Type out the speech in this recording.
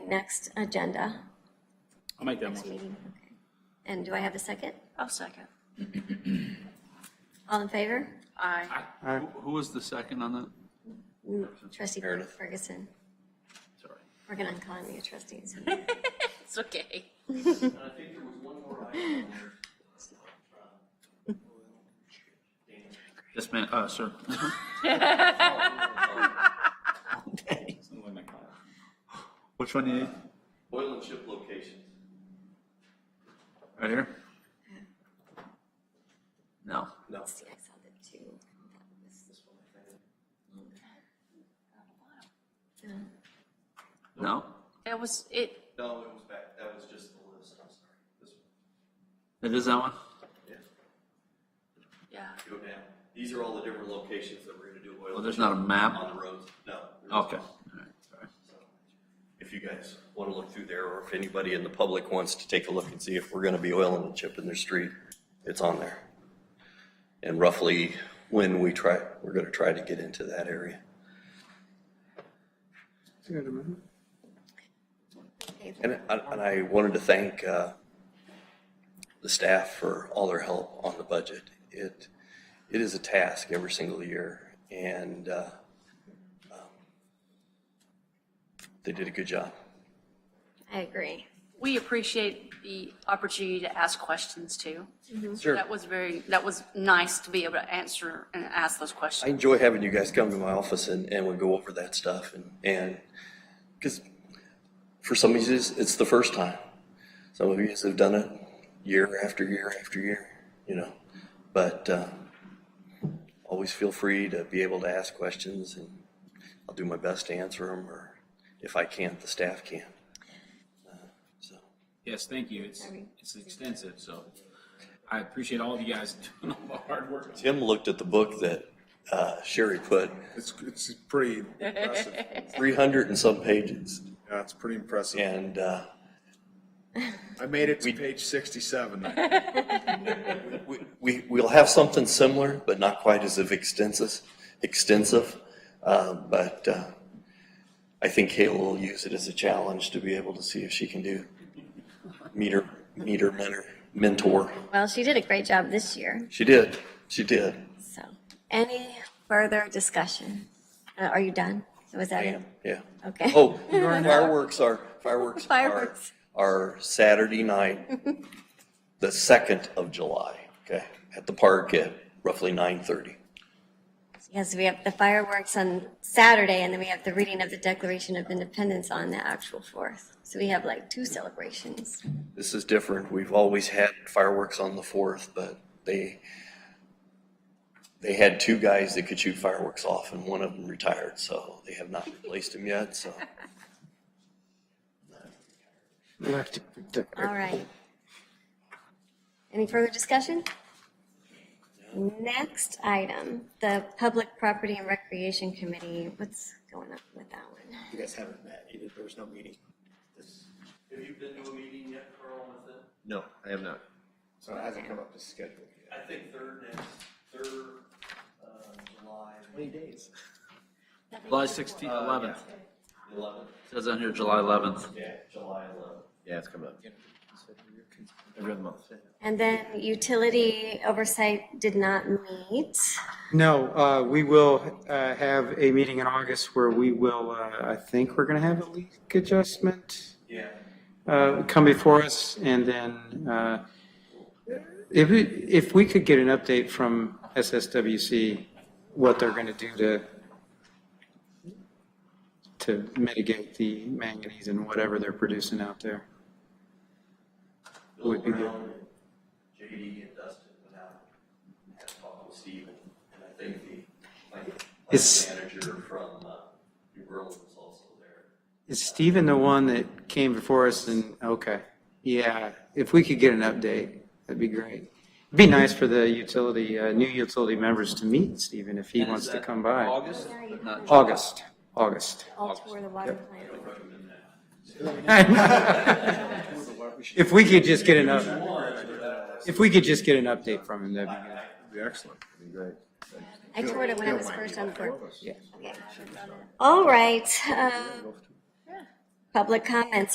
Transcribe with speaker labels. Speaker 1: next agenda,
Speaker 2: I'll make that
Speaker 1: next
Speaker 2: motion.
Speaker 1: meeting? Okay. And do I have a second?
Speaker 3: I'll second.
Speaker 1: All in favor?
Speaker 3: Aye.
Speaker 2: Who- Who was the second on that?
Speaker 1: Trustee
Speaker 2: Meredith.
Speaker 1: Ferguson,
Speaker 2: Sorry.
Speaker 1: we're going to call you trustees.
Speaker 3: It's okay.
Speaker 4: And I think there was one more item on there.
Speaker 2: Yes, ma'am, uh, sir. Which one do you need?
Speaker 4: Oil and chip locations.
Speaker 2: Right here? No.
Speaker 4: No.
Speaker 1: See, I saw the two. No.
Speaker 2: No?
Speaker 3: That was it.
Speaker 4: No, it was back, that was just the list, I'm sorry. This one,
Speaker 2: It is that one?
Speaker 4: yeah,
Speaker 3: Yeah.
Speaker 4: go down. These are all the different locations that we're gonna do oil.
Speaker 2: Well, there's not a map?
Speaker 4: On the roads, no. there
Speaker 2: Okay.
Speaker 4: isn't.
Speaker 2: All right, sorry.
Speaker 4: If you guys wanna look through there, or if anybody in the public wants to take a look and see if we're gonna be oiling and chipping their street, it's on there. And roughly when we try, we're gonna try to get into that area.
Speaker 1: Okay,
Speaker 4: And, and I wanted to thank uh, the staff for all their help on the budget. It, it is a task every single year, and uh, um, they did a good job.
Speaker 1: I agree.
Speaker 3: We appreciate the opportunity to ask questions too.
Speaker 4: Sure.
Speaker 3: That was very, that was nice to be able to answer and ask those
Speaker 4: I
Speaker 3: questions.
Speaker 4: enjoy having you guys come to my office and, and we go over that stuff and, and, because for some of you, it's the first time. Some of you have done it year after year after year, you know, but, uh, always feel free to be able to ask questions and I'll do my best to answer them or if I can't, the staff can. Uh, So,
Speaker 5: Yes, thank you. It's, it's extensive, so I appreciate all of you guys doing all the hard work.
Speaker 4: Tim looked at the book that, uh, Sherry put,
Speaker 6: It's, it's pretty impressive. Yeah,
Speaker 4: three hundred and some pages
Speaker 6: it's pretty impressive.
Speaker 4: and, uh,
Speaker 6: I made it to page sixty-seven.
Speaker 4: We, we, we'll have something similar, but not quite as of extensive, extensive. Uh, but, uh, I think Kayla will use it as a challenge to be able to see if she can do, meet her, meet her mentor, mentor.
Speaker 1: Well, she did a great job this year,
Speaker 4: She did, she did.
Speaker 1: so. Any further discussion? Uh, Are you done? Was that it?
Speaker 4: Bam, yeah.
Speaker 1: Okay.
Speaker 4: Oh, fireworks are, fireworks are,
Speaker 1: Fireworks.
Speaker 4: are Saturday night, the second of July, okay? At the park at roughly nine thirty.
Speaker 1: Yes, we have the fireworks on Saturday, and then we have the reading of the Declaration of Independence on the actual 4th. So we have like two celebrations.
Speaker 4: This is different. We've always had fireworks on the fourth, but they, they had two guys that could shoot fireworks off and one of them retired, so they have not replaced him yet, so.
Speaker 1: All right. Any further discussion? Next item, the Public Property and Recreation Committee. What's going on with that one?
Speaker 7: You guys haven't met, You- there was no meeting. This-
Speaker 4: Have you been to a meeting yet, Carl, with it?
Speaker 7: No, I have not. So it hasn't come up to schedule yet.
Speaker 4: I think third next, third, uh, July
Speaker 7: Twenty days.
Speaker 2: July sixteenth, eleventh.
Speaker 4: eleventh.
Speaker 2: Says on here July eleventh.
Speaker 4: Yeah, July eleventh.
Speaker 7: Yeah, it's coming up. Every other month.
Speaker 1: And then utility oversight did not meet.
Speaker 8: No, uh, we will uh, have a meeting in August where we will, uh, I think we're going to have a leak adjustment
Speaker 4: Yeah.
Speaker 8: uh, come before us, and then uh, if, we- if we could get an update from SSWC, what they're going to do to, to mitigate the manganese and whatever they're producing out there.
Speaker 4: Bill
Speaker 8: Would be good.
Speaker 4: Brown, JD and Dustin went out and had a talk with Steve, and and I think the, like,
Speaker 8: It's-
Speaker 4: manager from, uh, New Orleans was also there.
Speaker 8: Is Stephen the one that came before us and, okay, yeah, if we could get an update, that'd be great. It'd be nice for the utility, uh, new utility members to meet Stephen if he wants to come by.
Speaker 2: August, but not July.
Speaker 8: August, August.
Speaker 1: All toward the water plant.
Speaker 8: If we could just get an up, if we could just get an update from him, that'd be good.
Speaker 6: Be excellent.
Speaker 1: I toured it when I was first on board.
Speaker 8: Yeah.
Speaker 1: All right. uh, um, Public comments